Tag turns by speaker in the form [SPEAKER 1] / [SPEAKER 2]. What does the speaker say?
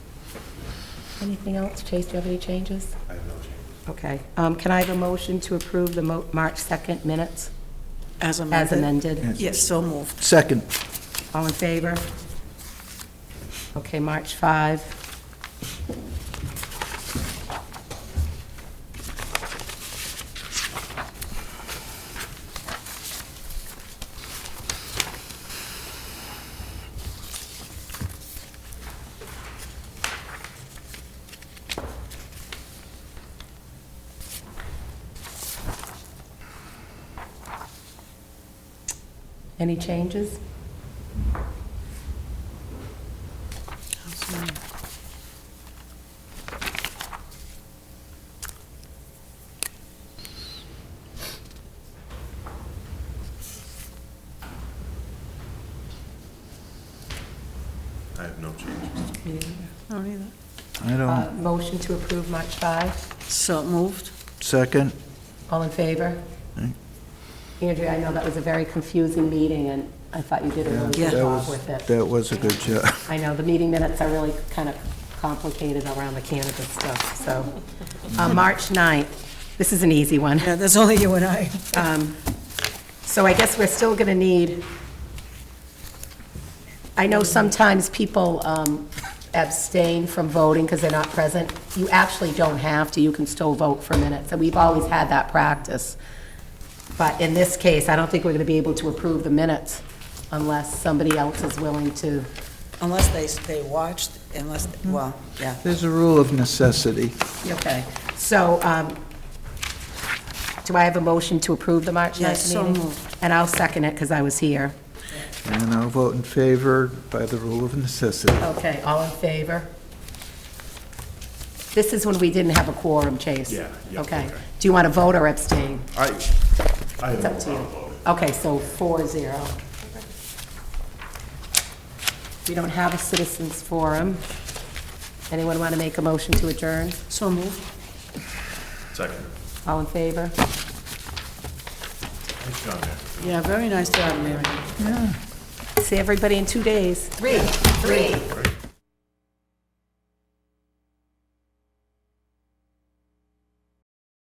[SPEAKER 1] Anything else? Chase, do you have any changes?
[SPEAKER 2] I have no change.
[SPEAKER 1] Okay. Um, Can I have a motion to approve the Mo- March 2nd minutes as
[SPEAKER 3] As amended?
[SPEAKER 1] amended?
[SPEAKER 3] Yes, so moved.
[SPEAKER 4] Second,
[SPEAKER 1] All in favor? Okay, March 5. Any changes?
[SPEAKER 2] I have no changes.
[SPEAKER 3] No, neither.
[SPEAKER 4] I
[SPEAKER 1] Uh,
[SPEAKER 4] don't,
[SPEAKER 1] Motion to approve March 5.
[SPEAKER 3] So moved.
[SPEAKER 4] second,
[SPEAKER 1] All in favor? Andrea, I know that was a very confusing meeting, and I thought you did a really
[SPEAKER 3] Yeah.
[SPEAKER 1] good
[SPEAKER 3] That
[SPEAKER 1] job with it.
[SPEAKER 4] that was a good job.
[SPEAKER 1] I know, the meeting minutes are really kind of complicated around the cannabis stuff, so. Uh, March 9th, this is an easy one.
[SPEAKER 3] Yeah, that's only you and I.
[SPEAKER 1] Um, So I guess we're still going to need, I know sometimes people um, abstain from voting because they're not present. You actually don't have to, you can still vote for minutes, and we've always had that practice. But in this case, I don't think we're going to be able to approve the minutes unless somebody else is willing to.
[SPEAKER 3] Unless they, they watched, unless, well, yeah.
[SPEAKER 4] There's a rule of necessity.
[SPEAKER 1] Okay. So um, do I have a motion to approve the March 9th meeting?
[SPEAKER 3] Yes, so moved.
[SPEAKER 1] And I'll second it because I was here.
[SPEAKER 4] And I'll vote in favor by the rule of necessity.
[SPEAKER 1] Okay, all in favor? This is when we didn't have a quorum, Chase?
[SPEAKER 2] Yeah, yeah,
[SPEAKER 1] Okay.
[SPEAKER 2] okay.
[SPEAKER 1] Do you want to vote or abstain?
[SPEAKER 2] I, I have
[SPEAKER 1] It's up
[SPEAKER 2] no
[SPEAKER 1] to
[SPEAKER 2] problem
[SPEAKER 1] you.
[SPEAKER 2] voting.
[SPEAKER 1] Okay, so four zero. We don't have a citizens forum. Anyone want to make a motion to adjourn?
[SPEAKER 3] So moved.
[SPEAKER 2] Second.
[SPEAKER 1] All in favor?
[SPEAKER 2] Thanks, John.
[SPEAKER 3] Yeah, very nice job, Mary.
[SPEAKER 1] See everybody in two days. Three. Three.
[SPEAKER 2] Great.